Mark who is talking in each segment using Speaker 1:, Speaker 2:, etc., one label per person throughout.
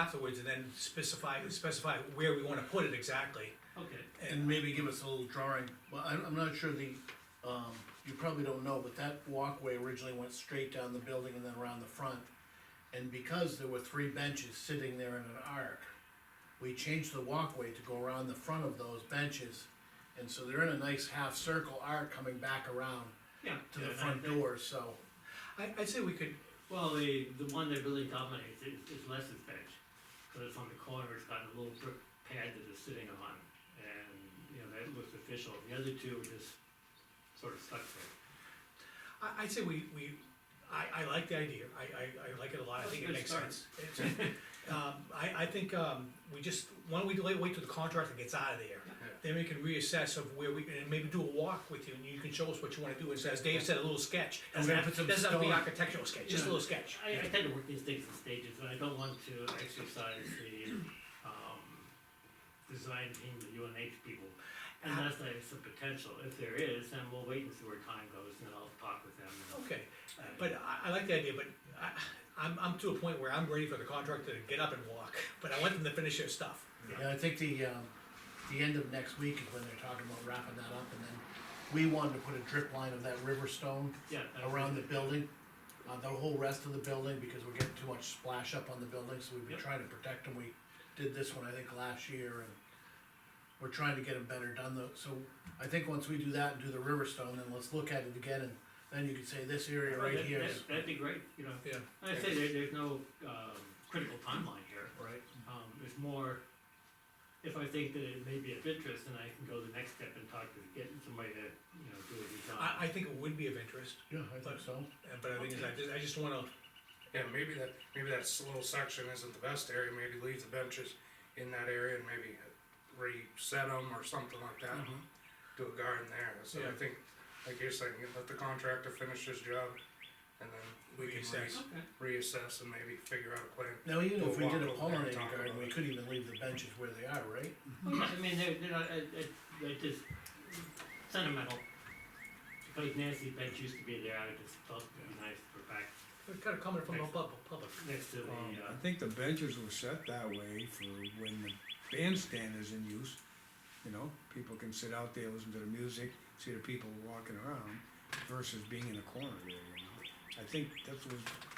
Speaker 1: afterwards and then specify, specify where we wanna put it exactly.
Speaker 2: Okay,
Speaker 1: And
Speaker 3: And maybe give us a little drawing, well, I'm, I'm not sure the, um, you probably don't know, but that walkway originally went straight down the building and then around the front. And because there were three benches sitting there in an arc, we changed the walkway to go around the front of those benches. And so they're in a nice half circle arc coming back around
Speaker 2: yeah.
Speaker 3: to the
Speaker 2: and I
Speaker 3: front
Speaker 2: think-
Speaker 3: door, so.
Speaker 1: I, I'd say we could,
Speaker 2: Well, the, the one that really dominates is, is Lester's bench, because it's on the corner, it's got a little brick pad that it's sitting on, and, you know, that looks official, the other two are just sort of stuck there.
Speaker 1: I, I'd say we, we, I, I like the idea, I, I, I like it a lot, I
Speaker 2: That's a
Speaker 1: think it
Speaker 2: good
Speaker 1: makes
Speaker 2: start.
Speaker 1: sense. It's- Um, I, I think, um, we just, why don't we delay, wait till the contractor gets out of there? Then we can reassess of where we, and maybe do a walk with you, and you can show us what you wanna do, and so as Dave said, a little sketch.
Speaker 3: And
Speaker 1: Doesn't
Speaker 3: we're gonna
Speaker 1: have,
Speaker 3: put some
Speaker 1: doesn't have to be
Speaker 3: stone-
Speaker 1: architectural sketch, just a
Speaker 2: Yeah.
Speaker 1: little sketch.
Speaker 2: I, I tend to work these things in stages, and I don't want to exercise the, um, design team, the UNH people, unless there's some potential, if there is, then we'll wait and see where time goes, and then I'll talk with them. and-
Speaker 1: Okay,
Speaker 2: and-
Speaker 1: but I, I like the idea, but I, I'm, I'm to a point where I'm ready for the contractor to get up and walk, but I want them to finish their stuff.
Speaker 3: Yeah, I think the, um, the end of next week is when they're talking about wrapping that up, and then we wanted to put a drip line of that river stone
Speaker 2: Yeah. that was-
Speaker 3: around the building, uh, the whole rest of the building, because we're getting too much splash up on the building, so we've been
Speaker 2: Yep.
Speaker 3: trying to protect them, we did this one, I think, last year, and we're trying to get them better done though, so I think once we do that and do the river stone, then let's look at it again, and then you could say this area right
Speaker 2: That-
Speaker 3: here
Speaker 2: that-
Speaker 3: is.
Speaker 2: That'd be great, you know,
Speaker 1: Yeah.
Speaker 2: Like I say, there, there's no, um, critical timeline here,
Speaker 3: Right.
Speaker 2: um, it's more, if I think that it may be of interest, then I can go the next step and talk to, get somebody to, you know, do a design.
Speaker 1: I, I think it would be of interest,
Speaker 3: Yeah, I think so.
Speaker 1: uh, but I think, I just, I just wanna,
Speaker 4: Yeah, maybe that, maybe that s- little section isn't the best area, maybe leave the benches in that area and maybe reset them or something like that. Do a garden there, so
Speaker 1: Mm-hmm. Yeah.
Speaker 4: I think, like you're saying, you let the contractor finish his job, and then we can
Speaker 1: Reassess.
Speaker 2: Okay,
Speaker 4: re- reassess and maybe figure out a plan.
Speaker 3: Now, even
Speaker 4: We'll
Speaker 3: if we
Speaker 4: walk
Speaker 3: did a
Speaker 4: over there and
Speaker 3: pollinator
Speaker 4: talk
Speaker 3: garden,
Speaker 4: about
Speaker 3: we
Speaker 4: it.
Speaker 3: could even leave the benches where they are, right?
Speaker 2: well, Oh, yeah, I mean, they're, they're not, I, I, they're just sentimental. Because Nancy bench used to be there, I just thought it'd be nice for back
Speaker 1: it's kinda coming from above, public.
Speaker 2: next to the,
Speaker 5: Um, I
Speaker 2: uh,
Speaker 5: think the benches were set that way for when the bandstand is in use, you know, people can sit out there, listen to the music, see the people walking around versus being in a corner there, you know. I think that was,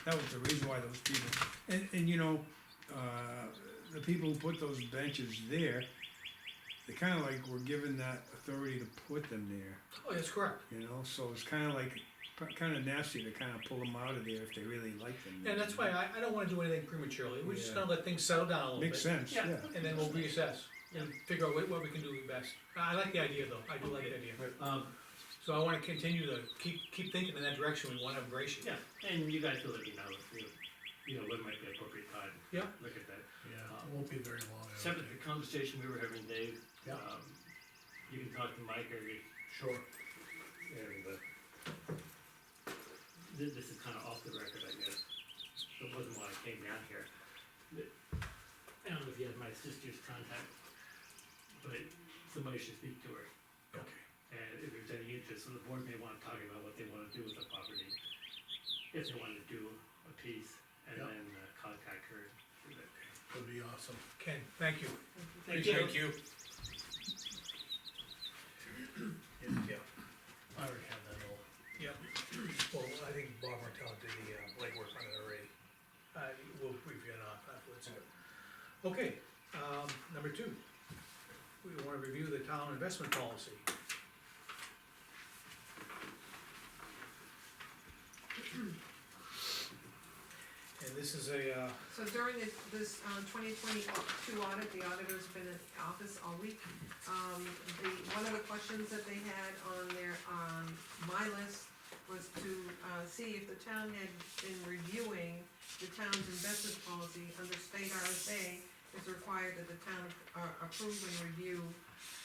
Speaker 5: that was the reason why those people, and, and you know, uh, the people who put those benches there, they kinda like were given that authority to put them there.
Speaker 1: Oh, that's correct,
Speaker 5: You know, so it's kind of like, kind of nasty to kind of pull them out of there if they really like them.
Speaker 1: and that's why I, I don't wanna do anything prematurely, we're just
Speaker 5: Yeah.
Speaker 1: gonna let things settle down a little bit.
Speaker 5: Makes sense,
Speaker 2: Yeah.
Speaker 5: yeah.
Speaker 1: And then we'll reassess, and figure out what, what we can do best, I I like the idea though, I do like the idea,
Speaker 2: um,
Speaker 1: so I wanna continue to keep, keep thinking in that direction, we wanna embrace it.
Speaker 2: Yeah, and you guys will let me know if you, you know, when might be appropriate time.
Speaker 1: Yeah.
Speaker 2: Look at that.
Speaker 3: Yeah, it won't be very long. I don't
Speaker 2: Separate
Speaker 3: think.
Speaker 2: the conversation we were having, Dave.
Speaker 3: Yeah.
Speaker 2: um, You can talk to Mike or you,
Speaker 3: Sure.
Speaker 2: and, uh, this, this is kinda off the record, I guess. It wasn't why I came down here. But I don't know if you have my sister's contact, but somebody should speak to her.
Speaker 1: Okay.
Speaker 2: And if there's any interest, so the board may wanna talk about what they wanna do with the property. If they wanna do a piece and
Speaker 3: Yeah.
Speaker 2: then uh, contact her.
Speaker 3: Would be awesome.
Speaker 1: Ken, thank you.
Speaker 2: Thank
Speaker 4: Thank you.
Speaker 1: Yeah.
Speaker 3: I already have that all.
Speaker 1: Yeah, well, I think Bob Martell did the uh, legwork on it already. Uh, we'll review it off afterwards. Okay, um, number two. We wanna review the town investment policy. And this is a, uh,
Speaker 6: So during this, this uh, twenty twenty-two audit, the auditor's been in office all week. Um, the, one of the questions that they had on their, on my list was to, uh, see if the town had been reviewing the town's investment policy under state RSA. It's required that the town, uh, approve and review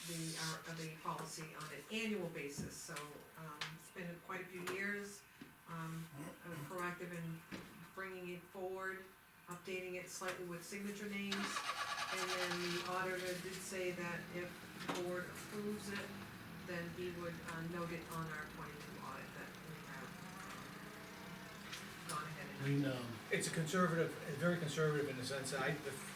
Speaker 6: the, uh, of the policy on an annual basis, so, um, it's been quite a few years. Um, I'm proactive in bringing it forward, updating it slightly with signature names. And then the auditor did say that if the board approves it, then he would uh, note it on our twenty-two audit that we have um, gone ahead and.
Speaker 3: We, um,
Speaker 1: it's a conservative, very conservative in the sense that I, the